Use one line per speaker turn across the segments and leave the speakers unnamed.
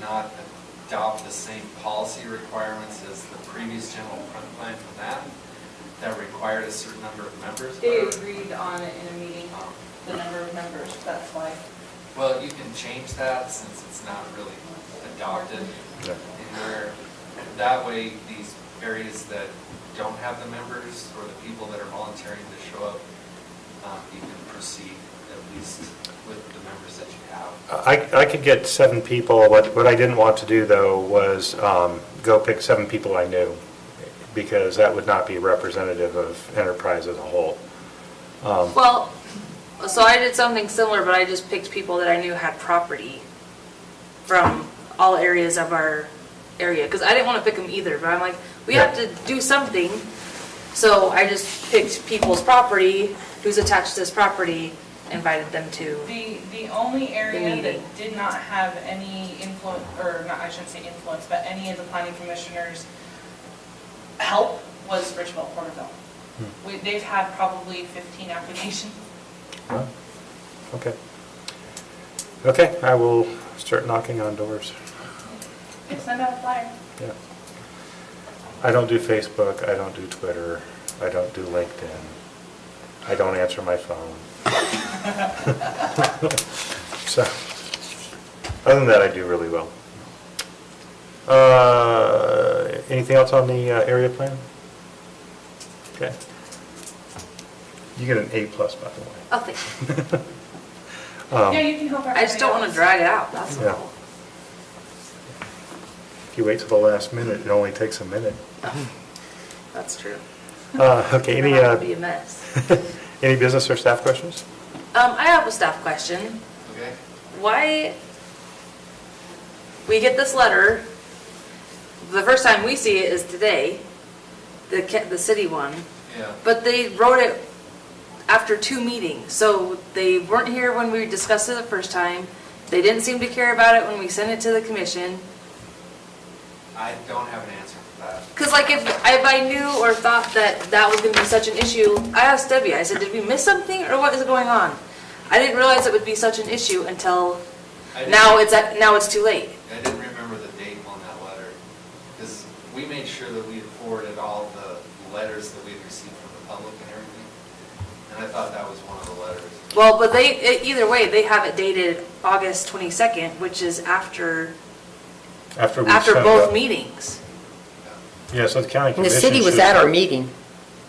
not adopt the same policy requirements as the previous general plan for that, that required a certain number of members.
They agreed on it in a meeting,
Um,
the number of members, that's why.
Well, you can change that since it's not really adopted.
Yeah.
And where, that way, these areas that don't have the members or the people that are volunteering to show up, um, you can proceed at least with the members that you have.
I, I could get seven people, what, what I didn't want to do, though, was um, go pick seven people I knew, because that would not be representative of enterprise as a whole. Um,
Well, so I did something similar, but I just picked people that I knew had property from all areas of our area, because I didn't want to pick them either, but I'm like, we have to do something. So I just picked people's property, who's attached to this property, invited them to.
The, the only area
meeting.
that did not have any influence, or not, I shouldn't say influence, but any of the planning commissioners' help was Richville Porterville. We, they've had probably 15 applications.
well, Okay. Okay, I will start knocking on doors,
Send out a flyer.
yeah. I don't do Facebook, I don't do Twitter, I don't do LinkedIn, I don't answer my phone. So, other than that, I do really well. Uh, Anything else on the uh, area plan? Okay. You get an A plus, by the way.
Oh, thank you.
Um,
Yeah, you can help everybody
I just don't want to
else.
drag it out, that's
Yeah.
all.
If you wait till the last minute, it only takes a minute.
That's true.
Uh, Okay, any,
It'll be a
uh,
mess.
any business or staff questions?
Um, I have a staff question.
Okay?
why we get this letter, the first time we see it is today, the, ca- the city one,
Yeah.
but they wrote it after two meetings, so they weren't here when we discussed it the first time, they didn't seem to care about it when we sent it to the commission.
I don't have an answer for that.
Because like if, if I knew or thought that that was gonna be such an issue, I asked Debbie, I said, did we miss something or what is going on? I didn't realize it would be such an issue until
I didn't-
now it's, at- now it's too late.
I didn't remember the date on that letter, because we made sure that we had forwarded all the letters that we had received from the public and everything, and I thought that was one of the letters.
Well, but they, e- either way, they have it dated August 22nd, which is after,
After we
after
sent
both
the-
meetings.
Yeah, so the county
The
commission.
city was
should-
at our meeting.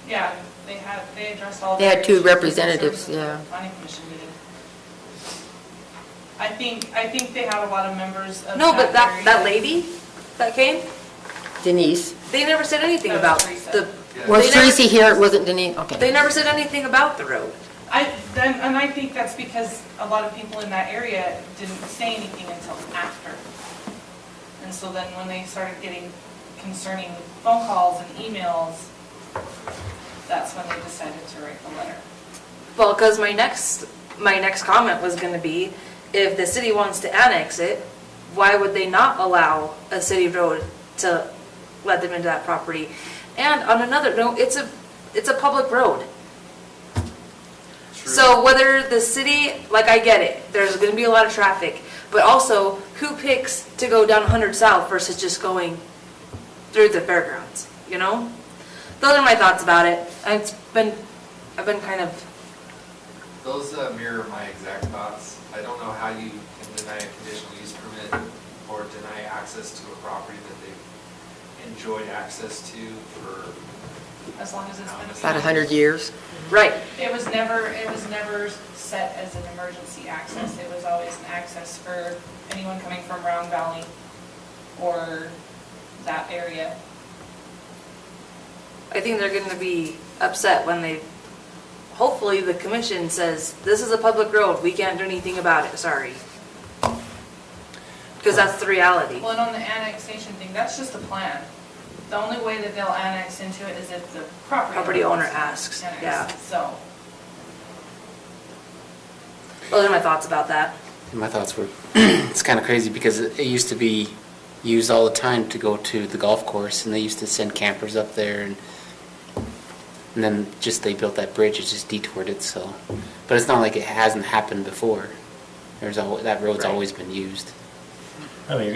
Yeah, they had, they addressed all.
They had
the
two
issues.
representatives, yeah.
Planning commission meeting. I think, I think they had a lot of members of.
No, but that,
area.
that lady that came,
Denise.
they never said anything
That was Teresa.
about the,
Yeah.
Was
They never-
Tracy here? It wasn't Denise?
they
Okay.
never said anything about the road.
I, then, and I think that's because a lot of people in that area didn't say anything until after. And so then when they started getting concerning phone calls and emails, that's when they decided to write the letter.
Well, because my next, my next comment was going to be, if the city wants to annex it, why would they not allow a city road to let them into that property? And on another note, it's a, it's a public road.
True.
So whether the city, like I get it, there's gonna be a lot of traffic, but also who picks to go down 100 South versus just going through the fairgrounds, you know? Those are my thoughts about it. And It's been, I've been kind of,
Those uh, mirror my exact thoughts. I don't know how you can deny a conditional use permit or deny access to a property that they've enjoyed access to for,
As long as it's been.
About a hundred years.
right,
It was never, it was never set as an emergency access. It was always an access for anyone coming from Round Valley or that area.
I think they're gonna be upset when they, hopefully the commission says, this is a public road, we can't do anything about it, sorry. Because that's the reality.
Well, and on the annexation thing, that's just a plan. The only way that they'll annex into it is if the property.
Property owner asks,
Annex,
yeah.
So,
Those are my thoughts about that.
And my thoughts were, it's kind of crazy because it it used to be used all the time to go to the golf course and they used to send campers up there and, and then just they built that bridge, it just detoured it, so. But it's not like it hasn't happened before. There's always, that road's
Right.
always been used.
I mean,